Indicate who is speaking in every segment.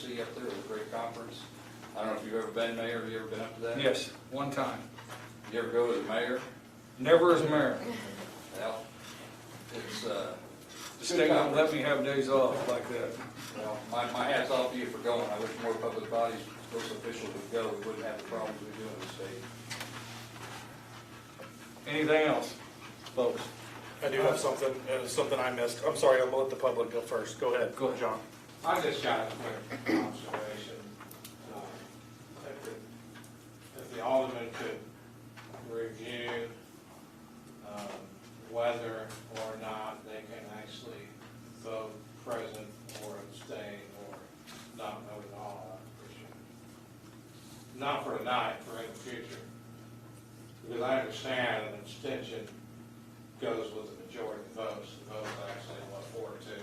Speaker 1: City up there, it was a great conference. I don't know if you've ever been mayor, have you ever been up to that?
Speaker 2: Yes, one time.
Speaker 1: You ever go as mayor?
Speaker 2: Never as mayor.
Speaker 1: Well, it's, uh,
Speaker 2: The state don't let me have days off like that.
Speaker 1: well, my, my hat's off to you for going. I wish more public bodies, those officials would go, we wouldn't have the problems we do in the state.
Speaker 2: Anything else, folks?
Speaker 3: I do have something, uh, something I missed. I'm sorry, I'll let the public go first. Go ahead.
Speaker 2: Go ahead.
Speaker 3: John.
Speaker 4: I just got a quick observation. Um, If it- if the alderman could review um, whether or not they can actually vote present or abstain or not vote at all, I appreciate it. Not for tonight, for in the future. Because I understand an abstention goes with the majority of votes. The votes actually, what, four to two?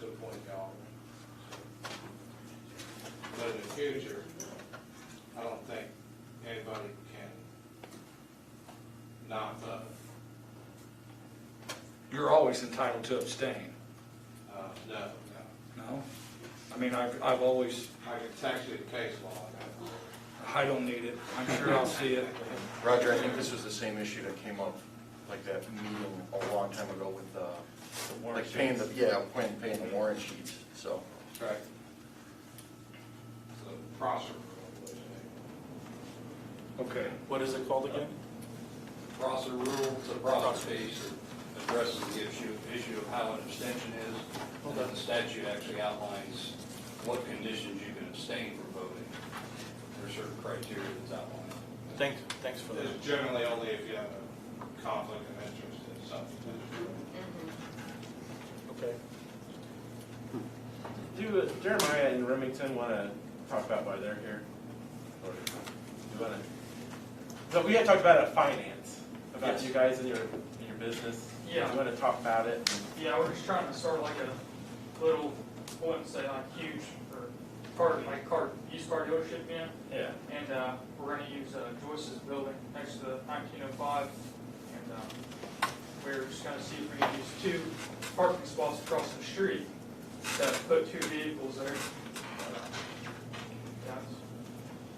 Speaker 4: to appoint the alderman. But in the future, I don't think anybody can not vote.
Speaker 2: You're always entitled to abstain,
Speaker 4: Uh, No, no.
Speaker 2: no? I mean, I've, I've always,
Speaker 4: I can text you the case law. I
Speaker 2: I don't need it. I'm sure I'll see it.
Speaker 5: Roger, I think this was the same issue that came up, like that meeting a long time ago with, uh, like paying the, yeah, paying, paying the warrant sheets, so.
Speaker 4: got it. So Prosser rule.
Speaker 2: Okay.
Speaker 3: What is it called again?
Speaker 1: Prosser rule, the Prosser piece that addresses the issue, issue of how an abstention is. And then the statute actually outlines what conditions you can abstain from voting. There are certain criteria that's outlined.
Speaker 3: Thanks, thanks for that.
Speaker 4: It's generally only if you have a conflict of interest in something.
Speaker 3: Okay.
Speaker 6: Do uh, Jeremiah and Remington want to talk about why they're here? Or do you want to? So we had talked about a finance, about
Speaker 7: Yes.
Speaker 6: you guys and your and your business.
Speaker 7: Yeah.
Speaker 6: Do you want to talk about it?
Speaker 7: Yeah, we're just trying to start like a little, I wouldn't say like huge, or car, like car, used car dealership, you know?
Speaker 6: Yeah.
Speaker 7: And, uh, we're gonna use uh, Joyce's building next to the nineteen oh five, and, um, we're just gonna see if we can use two parking spots across the street to put two vehicles there. Uh, That's-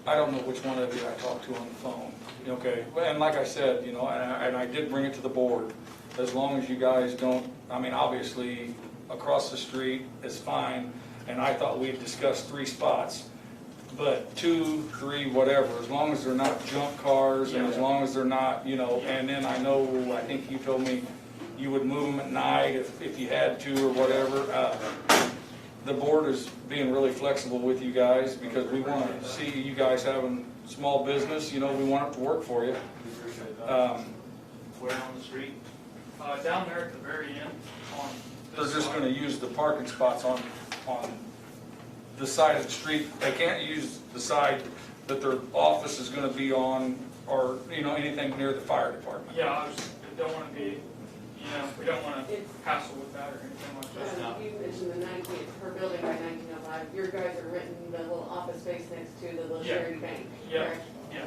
Speaker 2: I don't know which one of you I talked to on the phone, okay? And like I said, you know, and I, and I did bring it to the board, as long as you guys don't, I mean, obviously, across the street is fine, and I thought we had discussed three spots, but two, three, whatever, as long as they're not junk cars, and as long as they're not, you know, and then I know, I think you told me you would move them at night if, if you had to or whatever, uh, the board is being really flexible with you guys because we want to see you guys having small business, you know, we want it to work for you. Um,
Speaker 6: Where on the street?
Speaker 7: Uh, down there at the very end on.
Speaker 2: They're
Speaker 7: this
Speaker 2: just
Speaker 7: side.
Speaker 2: going to use the parking spots on, on the side of the street. They can't use the side that their office is going to be on or, you know, anything near the fire department.
Speaker 7: Yeah, I was, I don't wanna be, you know, we don't wanna hassle with that or anything like that.
Speaker 8: Uh, You mentioned the nineteenth, her building by nineteen oh five, your guys are renting the little office space next to the little
Speaker 7: Yeah.
Speaker 8: charity bank.
Speaker 7: Yeah.
Speaker 8: correct?
Speaker 7: Yeah,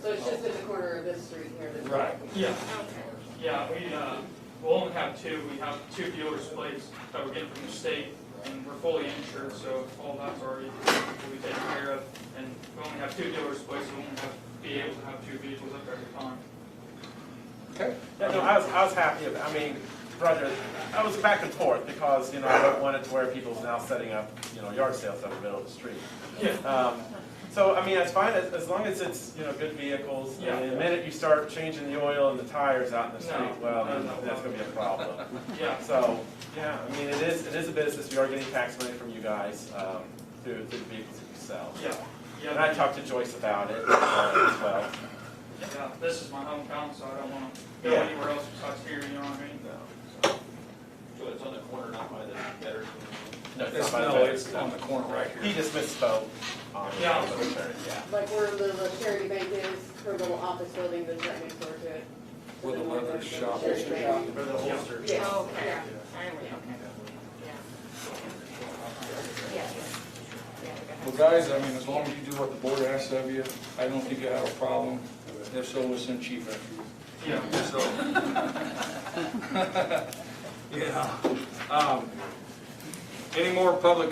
Speaker 8: So it's just in the corner of this street here. that's-
Speaker 2: Right.
Speaker 7: yeah,
Speaker 8: Okay.
Speaker 7: yeah, we, uh, we'll only have two, we have two dealers plates that we're getting from the state, and we're fully insured, so all that's already, will be taken care of, and we only have two dealers plates, so we won't have, be able to have two vehicles up there at a time.
Speaker 2: Okay.
Speaker 6: Yeah, no, I was I was happy. About, I mean, Roger, I was back and forth because you know I don't want it to where people's now setting up you know yard sales out in the middle of the street.
Speaker 7: Yeah,
Speaker 6: Um, so, I mean, it's fine, as, as long as it's, you know, good vehicles. I mean, The minute you start changing the oil and the tires out in the
Speaker 7: No,
Speaker 6: street, well,
Speaker 7: no, no.
Speaker 6: that's gonna be a problem.
Speaker 7: yeah,
Speaker 6: So, yeah, I mean, it is, it is a business, we are getting tax money from you guys, um, through, through the vehicles that you sell.
Speaker 7: yeah,
Speaker 6: And
Speaker 7: yeah,
Speaker 6: I talked to Joyce about it uh, as well.
Speaker 7: yeah, this is my hometown, so I don't wanna go
Speaker 6: Yeah.
Speaker 7: anywhere else besides here, you know what I mean?
Speaker 5: So it's on the corner, not by the better.
Speaker 6: No, it's
Speaker 2: It's,
Speaker 6: not
Speaker 2: no,
Speaker 6: my
Speaker 2: it's on the corner right
Speaker 6: He
Speaker 2: here.
Speaker 6: just misspoke on the
Speaker 7: Yeah.
Speaker 6: return, yeah.
Speaker 8: Like where the little charity bank is, her little office building that's right next door to it.
Speaker 2: Where the leather shop
Speaker 8: Charity
Speaker 2: is.
Speaker 8: bank.
Speaker 5: For the holster.
Speaker 8: Yes, yeah.
Speaker 2: Well, guys, I mean, as long as you do what the board asks of you, I don't think you have a problem. If so, we'll send chief after you.
Speaker 7: Yeah.
Speaker 2: So. Yeah. Um, Any more public